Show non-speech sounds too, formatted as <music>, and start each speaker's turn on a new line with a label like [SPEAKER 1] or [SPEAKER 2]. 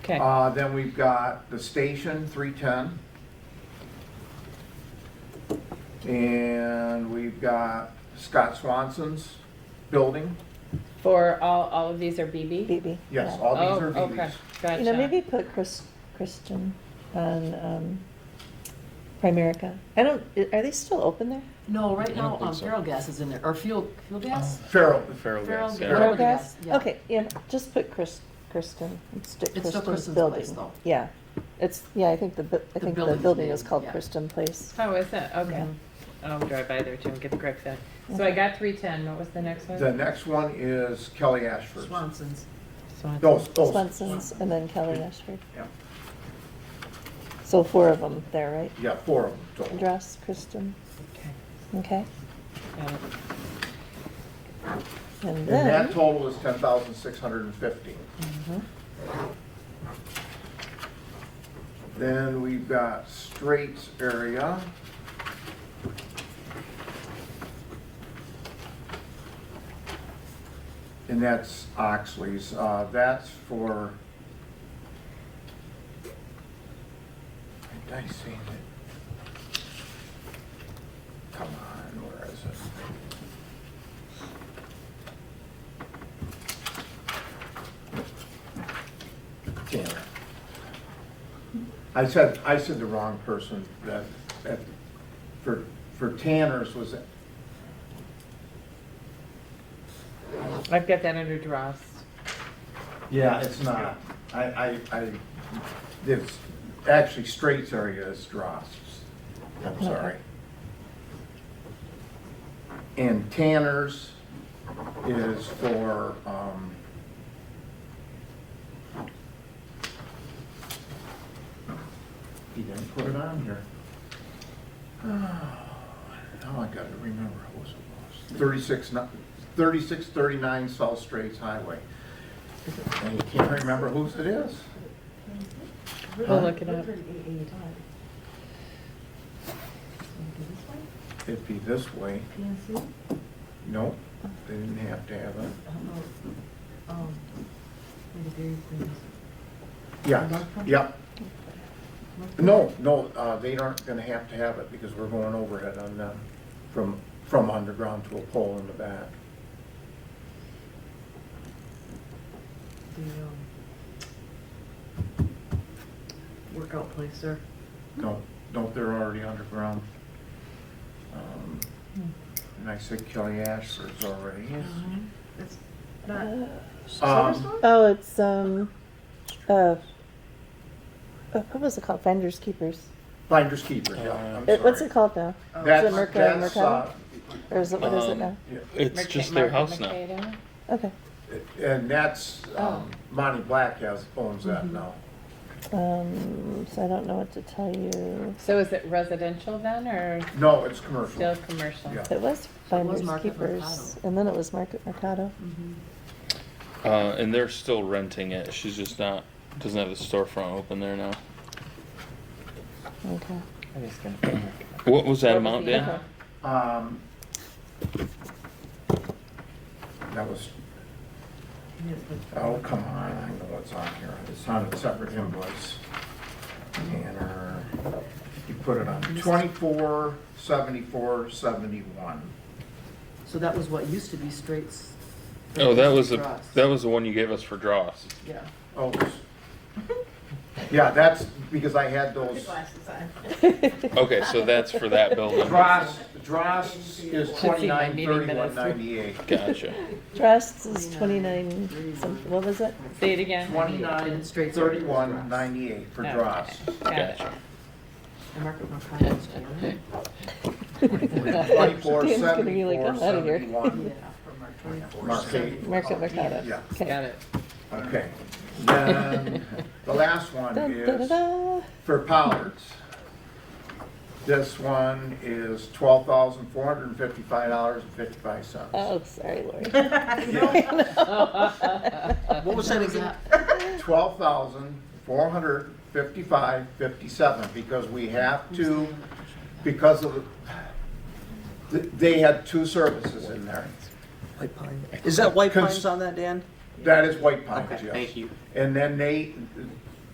[SPEAKER 1] Okay,
[SPEAKER 2] Uh, Then we've got the station, 310. And we've got Scott Swanson's building.
[SPEAKER 1] for all, all of these are BB?
[SPEAKER 3] BB.
[SPEAKER 2] Yes,
[SPEAKER 3] yeah.
[SPEAKER 2] all these
[SPEAKER 1] Oh,
[SPEAKER 2] are
[SPEAKER 1] okay.
[SPEAKER 2] BBs.
[SPEAKER 3] You know, maybe
[SPEAKER 1] Gotcha.
[SPEAKER 3] put Chris, Kristen on, um, Primerica. I don't, are they still open there?
[SPEAKER 4] No, right
[SPEAKER 5] I don't
[SPEAKER 4] now,
[SPEAKER 5] think
[SPEAKER 4] um,
[SPEAKER 5] so.
[SPEAKER 4] feral gas is in there, or fuel, fuel gas?
[SPEAKER 2] Farrell,
[SPEAKER 5] Feral
[SPEAKER 4] Feral
[SPEAKER 5] gas,
[SPEAKER 4] gas.
[SPEAKER 5] yeah.
[SPEAKER 4] Feral
[SPEAKER 3] Feral gas?
[SPEAKER 4] gas, yeah.
[SPEAKER 3] Okay, yeah, just put Chris, Kristen, and stick
[SPEAKER 4] It's still
[SPEAKER 3] Kristen's
[SPEAKER 4] Kristen's
[SPEAKER 3] building.
[SPEAKER 4] place, though.
[SPEAKER 3] Yeah, it's, yeah, I think the, bu- I
[SPEAKER 4] The
[SPEAKER 3] think the
[SPEAKER 4] building's
[SPEAKER 3] building is
[SPEAKER 4] name,
[SPEAKER 3] called
[SPEAKER 4] yeah.
[SPEAKER 3] Kristen Place.
[SPEAKER 1] Oh, is it? Okay.
[SPEAKER 3] Mhm.
[SPEAKER 1] I'll drive by there too and get the correct then. So I got three ten, what was the next one?
[SPEAKER 2] the next one is Kelly Ashford's.
[SPEAKER 4] Swanson's.
[SPEAKER 1] Swanson.
[SPEAKER 2] Those, those,
[SPEAKER 3] Swenson's and then Kelly Ashford.
[SPEAKER 2] Yeah.
[SPEAKER 3] So four of them there, right?
[SPEAKER 2] yeah, four of them total.
[SPEAKER 3] Address, Kristen,
[SPEAKER 1] Okay,
[SPEAKER 3] okay?
[SPEAKER 1] got it.
[SPEAKER 3] And
[SPEAKER 2] And that
[SPEAKER 3] then, Mm-hmm.
[SPEAKER 2] total is 10,650. Then we've got Straits area. And that's Oxley's, uh, that's for. Did I say that? Come on, where is it? Damn it. I said, I said the wrong person, that, that, for, for Tanner's was,
[SPEAKER 1] I've got that under Dross.
[SPEAKER 2] yeah, it's not. I, I, I, it's, actually Straits area is Dross, I'm sorry. And Tanner's is for, um, he didn't put it on here. <sighs> Now I gotta remember, what was it, was? thirty-six, ni- thirty-six, thirty-nine South Straits Highway. And you can't remember whose it is.
[SPEAKER 1] We'll look it up.
[SPEAKER 2] It'd be this way. Nope, they didn't have to have it.
[SPEAKER 4] Oh, um,
[SPEAKER 2] Yeah, yep. No, no, uh, they aren't gonna have to have it because we're going overhead on them from, from underground to a pole in the back.
[SPEAKER 4] um, Workout place there.
[SPEAKER 2] No, no, they're already underground. Um, And I said Kelly Ashford's already.
[SPEAKER 4] It's not
[SPEAKER 3] uh,
[SPEAKER 2] Um,
[SPEAKER 3] oh, it's, um, uh, uh, what was it called? Finders Keepers.
[SPEAKER 2] Finders keepers, yeah, I'm
[SPEAKER 3] It- What's
[SPEAKER 2] sorry.
[SPEAKER 3] it called now?
[SPEAKER 2] That's,
[SPEAKER 3] Is it Merca-
[SPEAKER 2] that's,
[SPEAKER 3] Mercado?
[SPEAKER 2] uh,
[SPEAKER 3] Or is it, what is it
[SPEAKER 5] Um,
[SPEAKER 3] now?
[SPEAKER 2] yeah,
[SPEAKER 5] It's just their house now.
[SPEAKER 1] now.
[SPEAKER 3] Okay.
[SPEAKER 2] and that's,
[SPEAKER 3] Oh.
[SPEAKER 2] um, Monty Black has, owns
[SPEAKER 3] Mm-hmm.
[SPEAKER 2] that now.
[SPEAKER 3] Um, so I don't know what to tell you.
[SPEAKER 1] So is it residential then, or
[SPEAKER 2] No, it's commercial.
[SPEAKER 1] still commercial?
[SPEAKER 2] Yeah.
[SPEAKER 3] It was Finders
[SPEAKER 4] Market
[SPEAKER 3] Keepers,
[SPEAKER 4] Mercado.
[SPEAKER 3] and then it was Market Mercado.
[SPEAKER 4] Mm-hmm.
[SPEAKER 5] Uh, and they're still renting it. She's just not, doesn't have the storefront open there now.
[SPEAKER 3] Okay.
[SPEAKER 1] I'm just gonna.
[SPEAKER 5] What was that amount,
[SPEAKER 1] Yeah.
[SPEAKER 5] Dan?
[SPEAKER 2] Um, That was, oh, come on, I know what's on here. It's on a separate invoice. And uh, you put it on twenty-four seventy-four seventy-one.
[SPEAKER 4] So that was what used to be Straits.
[SPEAKER 5] Oh, that was the,
[SPEAKER 4] Dross.
[SPEAKER 5] that was the one you gave us for Dross.
[SPEAKER 4] Yeah.
[SPEAKER 2] Oh, it's- yeah, that's because I had those.
[SPEAKER 5] Okay, so that's for that building.
[SPEAKER 2] <laughs> Dross, Dross is
[SPEAKER 1] see my
[SPEAKER 2] twenty-nine
[SPEAKER 1] meeting
[SPEAKER 2] thirty-one
[SPEAKER 1] minutes.
[SPEAKER 2] ninety-eight.
[SPEAKER 5] Gotcha.
[SPEAKER 3] Dressed is twenty-nine, something, what was it?
[SPEAKER 1] Say it again.
[SPEAKER 2] Twenty-nine thirty-one ninety-eight for
[SPEAKER 1] Okay.
[SPEAKER 3] <laughs>
[SPEAKER 2] Dross.
[SPEAKER 1] Got it.
[SPEAKER 5] Gotcha.
[SPEAKER 4] And Market Mercado is down there.
[SPEAKER 2] Twenty-four
[SPEAKER 3] <laughs> Dan's gonna be like,
[SPEAKER 2] seventy-four
[SPEAKER 3] "I'm outta here."
[SPEAKER 2] seventy-one. Marquee.
[SPEAKER 3] Market Mercado.
[SPEAKER 2] Yeah.
[SPEAKER 1] Got
[SPEAKER 3] Okay.
[SPEAKER 1] it.
[SPEAKER 2] Okay, then, the last one
[SPEAKER 3] Dun, da, da,
[SPEAKER 2] is
[SPEAKER 3] da.
[SPEAKER 2] for Pollard's. This one is twelve thousand four hundred and fifty-five dollars and fifty-five cents.
[SPEAKER 3] Oh, sorry, Lori.
[SPEAKER 2] <laughs>
[SPEAKER 3] <laughs>
[SPEAKER 1] Oh,
[SPEAKER 4] What was that again?
[SPEAKER 2] Twelve thousand four hundred fifty-five fifty-seven, because we have to, because of, the they had two services in there.
[SPEAKER 6] White Pine. Is that White
[SPEAKER 2] Cons-
[SPEAKER 6] Pines on that, Dan?
[SPEAKER 2] That is White Pines,
[SPEAKER 6] Okay,
[SPEAKER 2] yes.
[SPEAKER 6] thank you.
[SPEAKER 2] And then they,